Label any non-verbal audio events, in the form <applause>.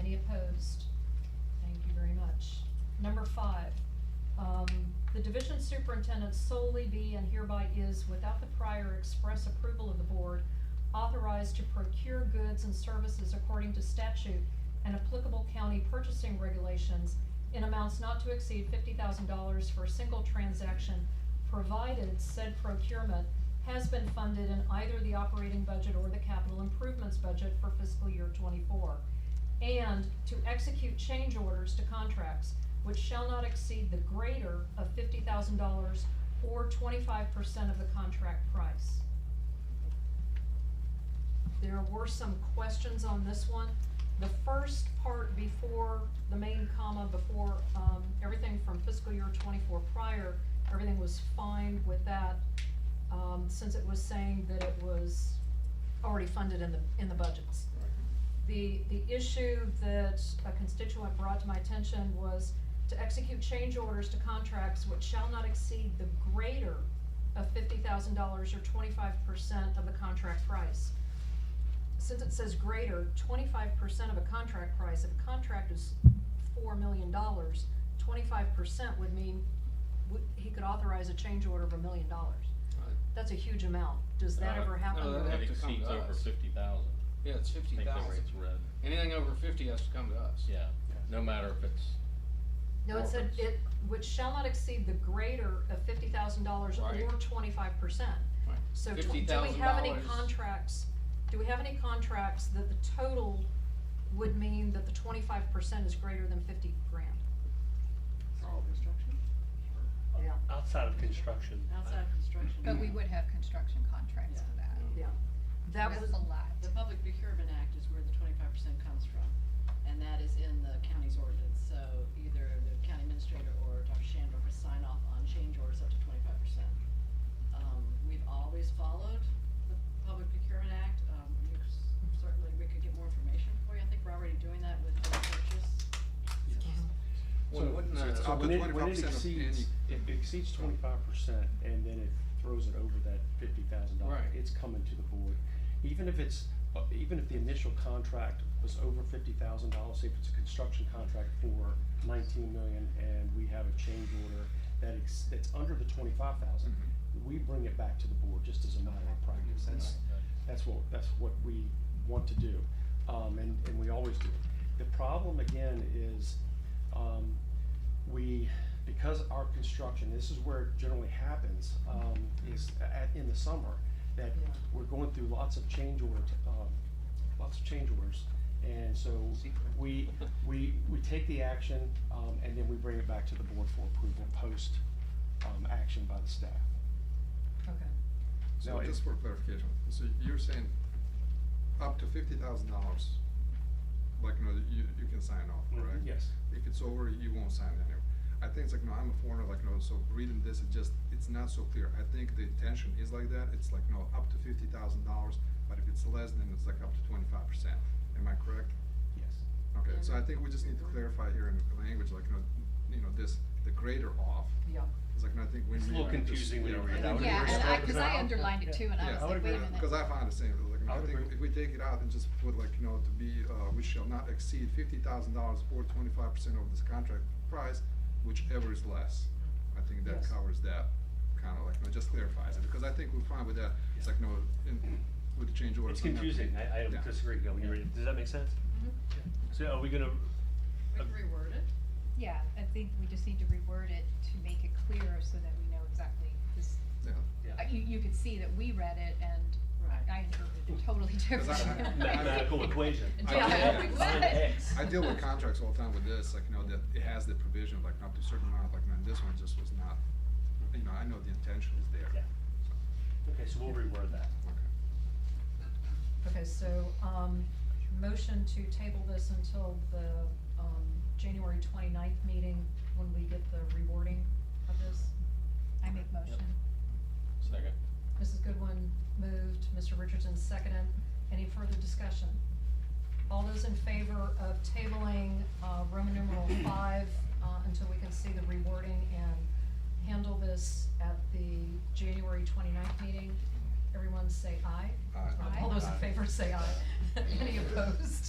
Opposed? Thank you very much. Number five, um, the division superintendent solely be and hereby is, without the prior express approval of the board, authorized to procure goods and services according to statute and applicable county purchasing regulations in amounts not to exceed fifty thousand dollars for a single transaction, provided said procurement has been funded in either the operating budget or the capital improvements budget for fiscal year twenty-four. And to execute change orders to contracts which shall not exceed the greater of fifty thousand dollars or twenty-five percent of the contract price. There were some questions on this one. The first part before, the main comma before, um, everything from fiscal year twenty-four prior, everything was fine with that, um, since it was saying that it was already funded in the, in the budgets. The, the issue that a constituent brought to my attention was to execute change orders to contracts which shall not exceed the greater of fifty thousand dollars or twenty-five percent of the contract price. Since it says greater, twenty-five percent of a contract price, if a contract is four million dollars, twenty-five percent would mean, would, he could authorize a change order of a million dollars. That's a huge amount. Does that Uh, ever happen? no, or- that'd It have to come exceeds to over us. fifty thousand. Yeah, it's I fifty think the thousand. rate's red, Anything over fifty has to come to us. yeah, no matter if it's, No, it said Orphans. it, which shall not exceed the greater of fifty thousand dollars Right. or twenty-five percent. Right. So do, do we $50,000 have any contracts, do we have any contracts that the total would mean that the twenty-five percent is greater than fifty grand? All construction? Yeah. Outside of construction. Outside of construction. But we would have construction contracts for that. Yeah. That was, That's a lot. The Public Procurement Act is where the twenty-five percent comes from, and that is in the county's ordinance, so either the county administrator or Dr. Shandor could sign off on change orders up to twenty-five percent. Um, we've always followed the Public Procurement Act, um, you s- certainly, we could get more information for you, I think we're already doing that with the purchase. Well, wouldn't, So uh, it's up to when it, twenty-five when percent of it exceeds, if it exceeds twenty-five percent and then it throws it over that fifty thousand dollars, Right. it's coming to the board. Even if it's, uh, even if the initial contract was over fifty thousand dollars, say if it's a construction contract for nineteen million and we have a change order that ex, that's under the twenty-five thousand, we bring it back to the board just as a matter of practice. That's, that's what, that's what we want to do, um, and, and we always do. The problem again is, um, we, because our construction, this is where it generally happens, um, is at, in the summer, that Yeah. we're going through lots of change order, um, lots of change orders. And so Secret. we, we, we take the action, um, and then we bring it back to the board for approval post, um, action by the staff. okay. No, So it- just for clarification, so you're saying up to fifty thousand dollars, like, you know, you, you can sign off, correct? Yes. If it's over, you won't sign it anyway. I think it's like, no, I'm a foreigner, like, no, so reading this, it just, it's not so clear. I think the intention is like that, it's like, no, up to fifty thousand dollars, but if it's less, then it's like up to twenty-five percent. Am I correct? Yes. Okay, so I think we just need to clarify here in the language, like, no, you know, this, the greater off, Yeah. it's like, no, I think when we. It's a little are just, confusing when you know, you read I that think one. we Yeah, were and I, struck cause I down. underlined it too, and I Yeah, was I like, would wait a agree minute. with Because I found the same, like, I I would think agree. if we take it out and just put like, you know, to be, uh, we shall not exceed fifty thousand dollars or twenty-five percent of this contract price, whichever is less. I think that Yes. covers that, kinda like, you know, just clarifies it, because I think we're fine with that, it's like, no, in, with the change orders. It's I'm not- confusing, I, I Yeah. disagree, go, you ready, does that make sense? Mm-hmm. Mhm. So are we gonna, We can reword it. Yeah, I think we just need to reword it to make it clearer so that we know exactly, cause Yeah, uh, you, you could see that we read it and Right. I interpreted it totally <laughs> different. I- <laughs> I- mathematical equation? I- Yeah, I- exactly. I deal with contracts all the time with this, like, you know, that it has the provision, like, up to a certain amount, like, man, this one just was not, you know, I know the intention is there. Yeah. Okay, so we'll reword that. Okay. Okay, so, um, motion to table this until the, um, January 29th meeting, when we get the rewarding of this. I make motion. second. Mrs. Goodwin moved, Mr. Richardson seconded. Any further discussion? All those in favor of tabling, uh, Roman numeral five, uh, until we can see the rewording and handle this at the January 29th meeting? Everyone say aye. Aye. All those in favor say aye. <laughs> Any opposed?